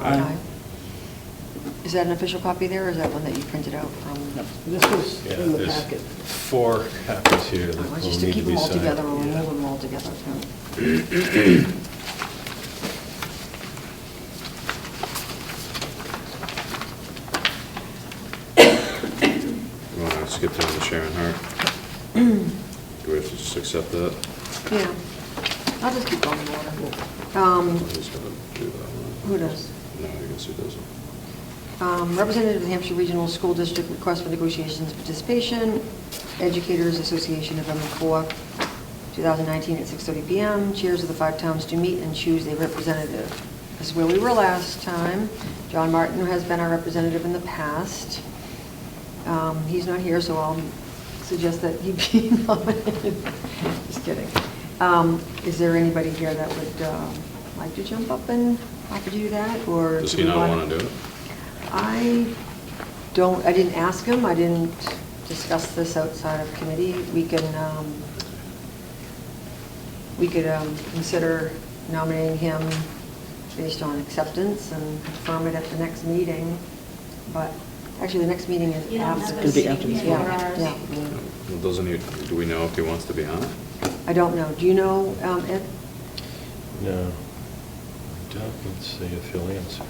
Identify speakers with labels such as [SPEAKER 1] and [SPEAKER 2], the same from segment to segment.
[SPEAKER 1] Aye. Is that an official copy there, or is that one that you printed out from?
[SPEAKER 2] This was
[SPEAKER 3] Yeah,
[SPEAKER 2] in the
[SPEAKER 3] there's
[SPEAKER 2] packet.
[SPEAKER 3] Four copies here that will
[SPEAKER 1] Oh,
[SPEAKER 3] need to be signed.
[SPEAKER 1] Just to keep them all together, or
[SPEAKER 3] Yeah.
[SPEAKER 1] remove them all together. too.
[SPEAKER 4] You want to skip down to Sharon Hart? Do we have to just accept that?
[SPEAKER 1] Yeah, I'll just keep going in order. Um,
[SPEAKER 4] He's gonna do that one.
[SPEAKER 1] Who does?
[SPEAKER 4] No, I guess he doesn't.
[SPEAKER 1] Um, Representative of the Hampshire Regional School District request for negotiations participation, Educators Association, November 4, 2019, at 6:30 PM. Chairs of the five towns to meet and choose a representative. This is where we were last time. John Martin has been our representative in the past. Um, He's not here, so I'll suggest that he be nominated. Just kidding. Um, Is there anybody here that would um, like to jump up and offer to do that, or?
[SPEAKER 4] Does
[SPEAKER 1] do
[SPEAKER 4] he
[SPEAKER 1] we
[SPEAKER 4] not
[SPEAKER 1] wanna-
[SPEAKER 4] want to do it?
[SPEAKER 1] I don't, I didn't ask him, I didn't discuss this outside of committee. We can, um, we could um, consider nominating him based on acceptance and confirm it at the next meeting, but actually, the next meeting is
[SPEAKER 5] You don't have
[SPEAKER 1] after.
[SPEAKER 5] a
[SPEAKER 2] It's gonna be after this
[SPEAKER 5] meeting
[SPEAKER 2] one.
[SPEAKER 1] Yeah,
[SPEAKER 5] before
[SPEAKER 1] yeah.
[SPEAKER 5] ours.
[SPEAKER 4] Well, Doesn't he, do we know if he wants to be on it?
[SPEAKER 1] I don't know, do you know, um, Ed?
[SPEAKER 3] No. Doug can see if he'll answer.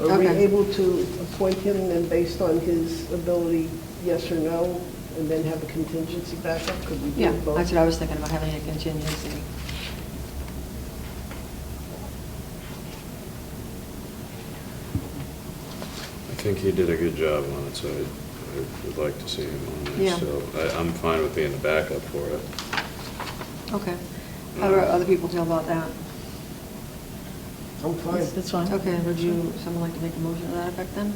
[SPEAKER 2] Are we
[SPEAKER 1] Okay.
[SPEAKER 2] able to appoint him then based on his ability, yes or no, and then have a contingency backup? Could we
[SPEAKER 1] Yeah,
[SPEAKER 2] do both?
[SPEAKER 1] that's what I was thinking about, having a contingency.
[SPEAKER 4] I think he did a good job on it, so I I would like to see him on
[SPEAKER 1] Yeah.
[SPEAKER 4] there. So I- I'm fine with being the backup for it.
[SPEAKER 1] Okay. How do other people feel about that?
[SPEAKER 2] I'm fine.
[SPEAKER 6] That's fine.
[SPEAKER 1] Okay, would you, someone like to make a motion to that effect then?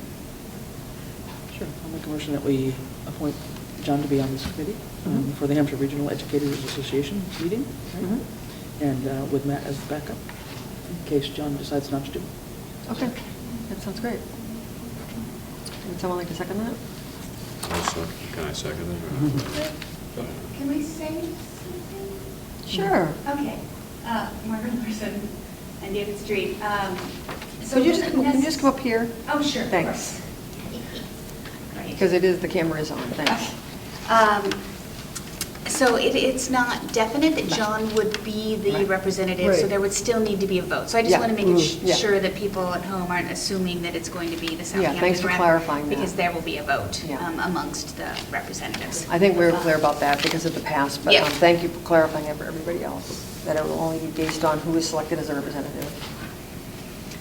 [SPEAKER 6] Sure. I'll make a motion that we appoint John to be on this committee um,
[SPEAKER 1] Mhm.
[SPEAKER 6] for the Hampshire Regional Educators Association meeting, right?
[SPEAKER 1] Mhm.
[SPEAKER 6] and uh, with Matt as the backup, in case John decides not to do it.
[SPEAKER 1] Okay, that sounds great. Would someone like to second that?
[SPEAKER 4] Also, can I second it? or-
[SPEAKER 5] Can we say something?
[SPEAKER 1] Sure.
[SPEAKER 5] Okay, Uh, Margaret Larson and David Street. Um, so
[SPEAKER 1] Could you just,
[SPEAKER 5] it
[SPEAKER 1] can you just
[SPEAKER 5] doesn't
[SPEAKER 1] come up here?
[SPEAKER 5] necess- Oh, sure. of
[SPEAKER 1] Thanks.
[SPEAKER 5] course. Right.
[SPEAKER 1] Because it is, the camera is on, thanks.
[SPEAKER 5] Okay. Um, So it, it's not definite that John would be the
[SPEAKER 1] Right.
[SPEAKER 5] representative, so
[SPEAKER 2] Right.
[SPEAKER 5] there would still need to be a vote. So I just
[SPEAKER 1] Yeah.
[SPEAKER 5] want to make it sh-
[SPEAKER 1] Mhm. Yeah.
[SPEAKER 5] sure that people at home aren't assuming that it's going to be the Southampton
[SPEAKER 1] Yeah,
[SPEAKER 5] rep.
[SPEAKER 1] thanks for clarifying that.
[SPEAKER 5] Because there will be a vote
[SPEAKER 1] Yeah.
[SPEAKER 5] um, amongst the representatives.
[SPEAKER 1] I think we were clear about that because of the past, but um,
[SPEAKER 5] Yeah.
[SPEAKER 1] thank you for clarifying it for everybody else, that it will only be based on who is selected as a representative.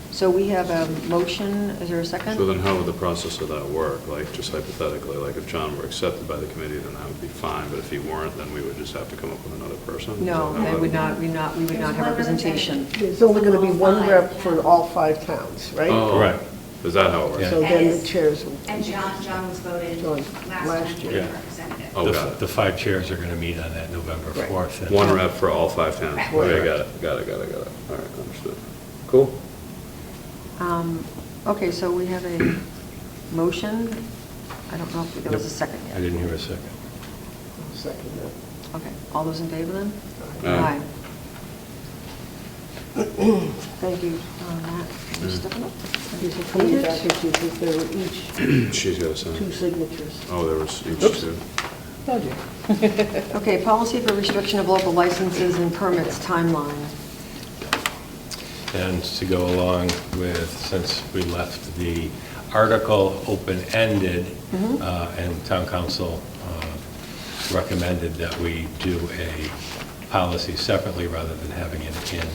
[SPEAKER 1] So we have a motion, is there a second?
[SPEAKER 4] So then how would the process of that work? Like, just hypothetically, like if John were accepted by the committee, then that would be fine, but if he weren't, then we would just have to come up with another person? Is that
[SPEAKER 1] No,
[SPEAKER 4] how
[SPEAKER 1] they
[SPEAKER 4] that
[SPEAKER 1] would not, we not, we would not have
[SPEAKER 5] There's one
[SPEAKER 1] representation.
[SPEAKER 2] There's only going to be one
[SPEAKER 5] Five.
[SPEAKER 2] rep for all five towns, right?
[SPEAKER 4] Oh,
[SPEAKER 3] Correct.
[SPEAKER 4] Is that how it works?
[SPEAKER 2] So
[SPEAKER 5] Yeah.
[SPEAKER 2] then
[SPEAKER 5] Yes.
[SPEAKER 2] the chairs will...
[SPEAKER 5] And John, John was voted
[SPEAKER 2] John, last
[SPEAKER 5] last time
[SPEAKER 3] year.
[SPEAKER 5] the
[SPEAKER 3] Yeah.
[SPEAKER 5] representative.
[SPEAKER 4] Oh,
[SPEAKER 3] The-
[SPEAKER 4] got it.
[SPEAKER 3] The five chairs are going to meet on that November
[SPEAKER 2] Right.
[SPEAKER 3] 4th. and-
[SPEAKER 4] One rep for all five towns. Okay, got it, got it, got it, got it. All right, understood. Cool.
[SPEAKER 1] Um, Okay, so we have a motion. I don't know if there was a second yet.
[SPEAKER 3] I didn't hear a second.
[SPEAKER 2] Second that.
[SPEAKER 1] Okay, all those in favor then?
[SPEAKER 4] Aye.
[SPEAKER 1] Aye. Thank you uh, on that. You're stepping up.
[SPEAKER 2] These are coming back if you think there were each
[SPEAKER 4] She's got a
[SPEAKER 2] two
[SPEAKER 4] sign.
[SPEAKER 2] signatures.
[SPEAKER 4] Oh, there was each
[SPEAKER 6] Oops.
[SPEAKER 4] two.
[SPEAKER 6] Oh, dear.
[SPEAKER 1] Okay, policy for restriction of local licenses and permits timeline.
[SPEAKER 3] And to go along with, since we left the article open-ended,
[SPEAKER 1] Mhm.
[SPEAKER 3] uh, and town council uh, recommended that we do a policy separately rather than having it in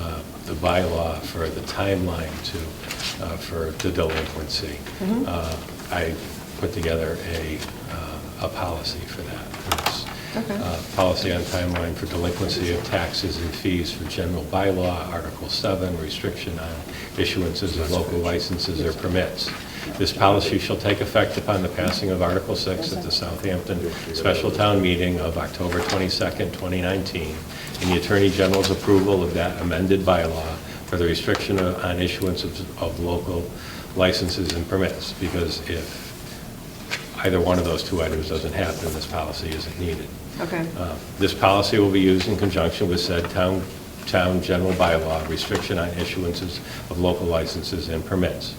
[SPEAKER 3] uh, the bylaw for the timeline to, uh, for the delinquency.
[SPEAKER 1] Mhm.
[SPEAKER 3] Uh, I put together a, uh, a policy for that. It's,
[SPEAKER 1] Okay.
[SPEAKER 3] uh, Policy on timeline for delinquency of taxes and fees for general bylaw, Article 7, restriction on issuances of local licenses or permits. This policy shall take effect upon the passing of Article 6 at the Southampton Special Town Meeting of October 22nd, 2019, and the Attorney General's approval of that amended bylaw for the restriction of- on issuance of of local licenses and permits, because if either one of those two items doesn't happen, this policy isn't needed.
[SPEAKER 1] Okay.
[SPEAKER 3] Uh, This policy will be used in conjunction with said town town general bylaw restriction on issuances of local licenses and permits.